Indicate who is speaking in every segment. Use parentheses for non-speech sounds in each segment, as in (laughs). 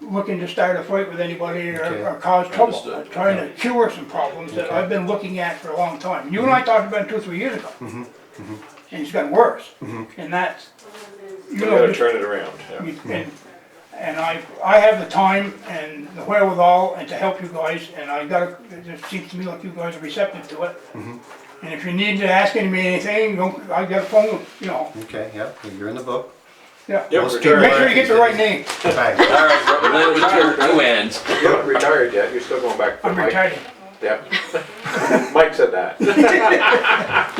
Speaker 1: looking to start a fight with anybody
Speaker 2: Okay.
Speaker 1: or or cause trouble.
Speaker 3: Understood.
Speaker 1: I'm Trying to cure some problems that I've been looking at for a long time. You and I talked about it two, three years ago. And it's gotten worse. And that's, you
Speaker 3: We
Speaker 1: know,
Speaker 3: gotta
Speaker 1: just-
Speaker 3: turn it around, yeah.
Speaker 1: you- and, and I, I have the time and the wherewithal and to help you guys, and I gotta, it just seems to me like you guys are receptive to it. And if you need to ask me anything, don't, I got a phone, you know,
Speaker 2: Okay, yep, you're in the book.
Speaker 1: yeah.
Speaker 3: Yeah,
Speaker 1: Make
Speaker 3: we're
Speaker 2: Most people-
Speaker 3: retired.
Speaker 1: sure you get the right name.
Speaker 2: Right.
Speaker 3: All right, Robert,
Speaker 4: One
Speaker 3: you're
Speaker 4: with two,
Speaker 3: retired.
Speaker 4: two ends.
Speaker 3: You're not retired yet, you're still going back. to
Speaker 1: I'm
Speaker 3: Mike.
Speaker 1: retired.
Speaker 3: Yeah. (laughs) Mike said that. You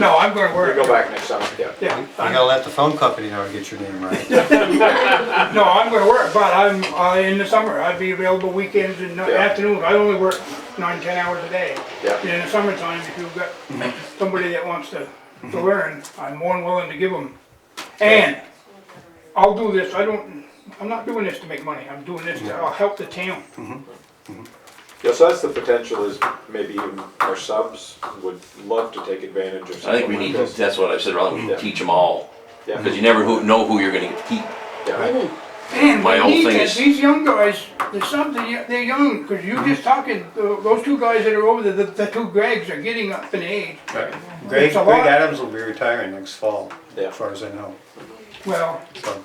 Speaker 1: No, I'm gonna work.
Speaker 3: go back next summer, yeah.
Speaker 1: Yeah,
Speaker 2: You gotta let the phone company know to get your name right.
Speaker 1: no, I'm gonna work, but I'm, uh, in the summer, I'd be available weekends and
Speaker 3: Yeah.
Speaker 1: afternoons, I only work nine, ten hours a day.
Speaker 3: Yeah.
Speaker 1: And In the summertime, if you've got somebody that wants to,
Speaker 4: Mm-hmm.
Speaker 1: to learn, I'm more than willing to give them. And, I'll do this, I don't, I'm not doing this to make money, I'm doing this to, I'll help the town.
Speaker 3: Yeah, so that's the potential is maybe even our subs would love to take advantage of
Speaker 4: I think we
Speaker 3: something
Speaker 4: need,
Speaker 3: like
Speaker 4: to-
Speaker 3: this.
Speaker 4: that's what I said, Ron, we need to teach them all.
Speaker 3: Yeah.
Speaker 4: Because you never who- know who you're gonna get to keep.
Speaker 3: Yeah.
Speaker 1: And
Speaker 4: My
Speaker 1: we
Speaker 4: whole
Speaker 1: need
Speaker 4: thing
Speaker 1: this,
Speaker 4: is-
Speaker 1: these young guys, there's something, they're young, cause you just talking, tho- those two guys that are over there, the, the two Gregs are getting up in age.
Speaker 2: Greg,
Speaker 1: It's a
Speaker 2: Greg
Speaker 1: lot.
Speaker 2: Adams will be retiring next fall,
Speaker 3: Yeah.
Speaker 2: as far as I know.
Speaker 1: Well,
Speaker 2: So,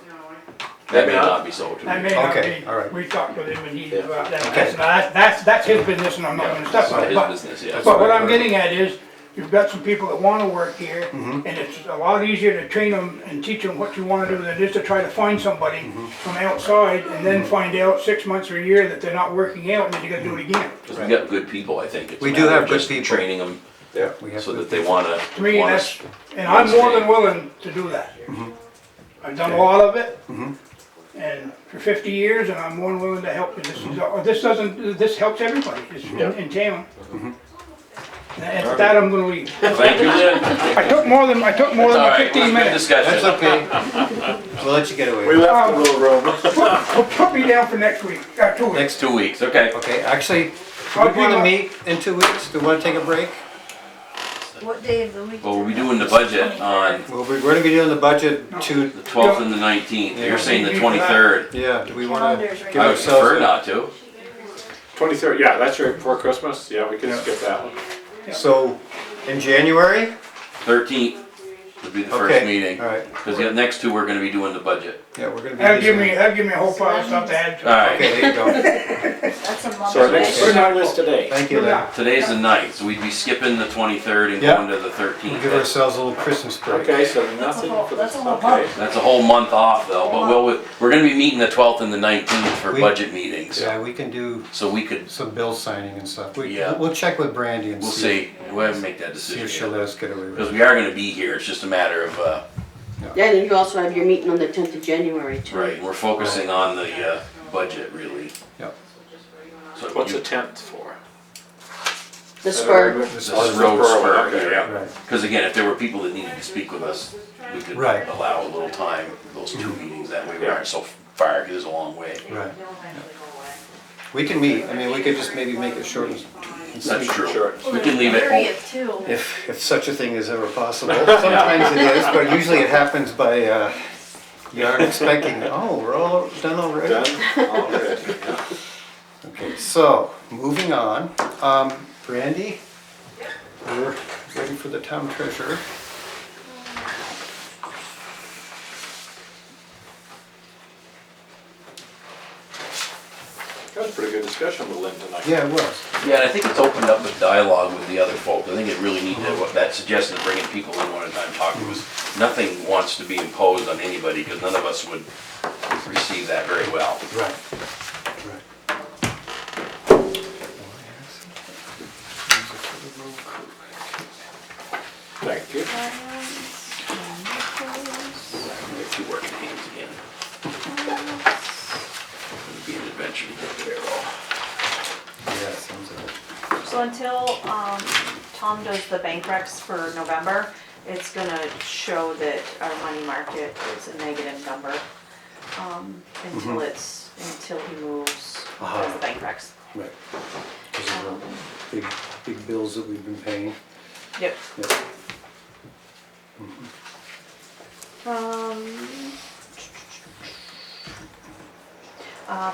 Speaker 4: That may not be so true.
Speaker 1: I may not
Speaker 2: Okay, all
Speaker 1: be,
Speaker 2: right.
Speaker 1: we talked with him and he's
Speaker 3: Yeah.
Speaker 1: about that,
Speaker 2: Okay.
Speaker 1: that's, not- that's, that's his business and I'm not gonna step
Speaker 4: It's not
Speaker 1: on it,
Speaker 4: his
Speaker 1: but,
Speaker 4: business, yeah.
Speaker 1: but what I'm getting at is, you've got some people that wanna work here, and it's a lot easier to train them and teach them what you wanna do than it is to try to find somebody from outside and then find out six months or a year that they're not working out and then you gotta do it again.
Speaker 4: Because we got good people, I think. It's
Speaker 2: We
Speaker 4: a
Speaker 2: do
Speaker 4: matter
Speaker 2: have
Speaker 4: of
Speaker 2: good
Speaker 4: just
Speaker 2: people.
Speaker 4: Training them
Speaker 3: Yeah.
Speaker 2: we have
Speaker 4: so
Speaker 2: to-
Speaker 4: that they wanna,
Speaker 1: To me,
Speaker 4: wanna
Speaker 1: that's, and I'm more than willing to do that.
Speaker 4: Mm-hmm.
Speaker 1: I've done a lot of it, and for fifty years, and I'm more than willing to help, you. this is, oh, this doesn't, this helps everybody, it's
Speaker 4: Mm-hmm.
Speaker 1: in in town. And at that, I'm gonna leave.
Speaker 4: (laughs) Thank
Speaker 1: (laughs)
Speaker 4: you, Lynn.
Speaker 1: I took more than, I took more
Speaker 4: It's all
Speaker 1: than
Speaker 4: right.
Speaker 1: fifteen
Speaker 4: Good
Speaker 1: minutes.
Speaker 2: That's
Speaker 4: discussion.
Speaker 2: okay. We'll let you get away with
Speaker 3: We
Speaker 2: it.
Speaker 3: left a little room. (laughs)
Speaker 1: Put put me down for next week, uh, two weeks.
Speaker 2: Next,
Speaker 4: Two weeks, okay.
Speaker 2: okay, actually,
Speaker 1: I'll
Speaker 2: we're
Speaker 1: be
Speaker 2: gonna
Speaker 1: on-
Speaker 2: meet in two weeks. Do we wanna take a break?
Speaker 5: What day of the week?
Speaker 4: Well, we'll be doing the budget on
Speaker 2: Well, we're gonna be doing the budget to,
Speaker 4: the twelfth and the nineteenth. You're saying the twenty-third.
Speaker 2: yeah, do we wanna
Speaker 5: Calendars right
Speaker 2: give
Speaker 4: I would
Speaker 2: ourselves?
Speaker 4: prefer
Speaker 2: a-
Speaker 4: not to.
Speaker 3: Twenty-third, yeah, that's right before Christmas, yeah, we can skip that one.
Speaker 2: So, in January?
Speaker 4: Thirteenth would be the first
Speaker 2: Okay,
Speaker 4: meeting.
Speaker 2: all right.
Speaker 4: Because the next two, we're gonna be doing the budget.
Speaker 2: Yeah, we're gonna be.
Speaker 1: That'll give
Speaker 2: busy.
Speaker 1: me, that'll give me a whole pile of stuff to add
Speaker 4: All
Speaker 1: to.
Speaker 4: right,
Speaker 2: Okay, there
Speaker 1: (laughs)
Speaker 2: you go.
Speaker 5: That's a month.
Speaker 3: So our
Speaker 5: away.
Speaker 3: next, our list today.
Speaker 2: Thank you, Lynn.
Speaker 4: today's the ninth, so we'd be skipping the twenty-third and
Speaker 2: Yeah.
Speaker 4: going to the
Speaker 2: We'll
Speaker 4: thirteenth.
Speaker 2: give
Speaker 4: That's
Speaker 2: ourselves a little Christmas break.
Speaker 3: Okay, so
Speaker 5: That's a
Speaker 3: nothing
Speaker 5: whole-
Speaker 3: for
Speaker 5: that's
Speaker 3: this,
Speaker 5: a whole
Speaker 3: okay.
Speaker 5: month.
Speaker 4: that's a whole month off though, but we'll, we're gonna be meeting the twelfth and the nineteenth for
Speaker 2: We-
Speaker 4: budget meetings.
Speaker 2: Yeah, we can do
Speaker 4: So we could,
Speaker 2: some bill signing and stuff. We,
Speaker 4: Yeah.
Speaker 2: we'll check with Brandy and
Speaker 4: we'll
Speaker 2: see.
Speaker 4: see, we'll have to make that
Speaker 2: See if she'll
Speaker 4: decision.
Speaker 2: let us get away with
Speaker 4: Because
Speaker 2: it.
Speaker 4: we are gonna be here, it's just a matter of, uh,
Speaker 6: Yeah, and you also have your meeting on the tenth of January too.
Speaker 4: right, we're focusing on the, uh, budget really.
Speaker 2: Yep.
Speaker 4: So
Speaker 3: What's
Speaker 4: you-
Speaker 3: the tenth for?
Speaker 6: The spur,
Speaker 2: This
Speaker 4: This
Speaker 2: is-
Speaker 4: road spur
Speaker 3: Okay,
Speaker 4: here.
Speaker 3: yeah.
Speaker 2: Right,
Speaker 4: Because again, if there were people that needed to speak with us, we could
Speaker 2: Right. Mm-hmm.
Speaker 4: allow a little time, those two meetings, that way we
Speaker 3: Yeah.
Speaker 4: aren't so far, because it's a long way.
Speaker 2: right. We can meet, I mean, we could just maybe make it short and
Speaker 4: That's true.
Speaker 3: Sure.
Speaker 4: We can leave it,
Speaker 5: Area
Speaker 4: oh,
Speaker 5: too.
Speaker 2: if, if such a thing is ever possible. Sometimes it is, but usually it happens by, uh, you aren't expecting, oh, we're all done
Speaker 3: Done
Speaker 2: already.
Speaker 3: (laughs) already, yeah.
Speaker 2: Okay, so, moving on, um, Brandy, we're waiting for the town treasurer.
Speaker 3: That was a pretty good discussion with Lynn tonight.
Speaker 2: Yeah, it was.
Speaker 4: yeah, and I think it's opened up a dialogue with the other folk. I think it really needed, what that suggested, bringing people in one at a time, talking was, nothing wants to be imposed on anybody, because none of us would receive that very well.
Speaker 2: Right,
Speaker 3: Thank you.
Speaker 4: We have two working hands again. It'd be an adventure to get there, all.
Speaker 2: yeah, sounds like it.
Speaker 7: So until, um, Tom does the bank recs for November, it's gonna show that our money market is a negative number. Um, until it's, until he moves, does the bank recs.
Speaker 2: Right. Because of the big, big bills that we've been paying.
Speaker 7: Um, Yep.
Speaker 2: Yep.
Speaker 7: Um. Uh,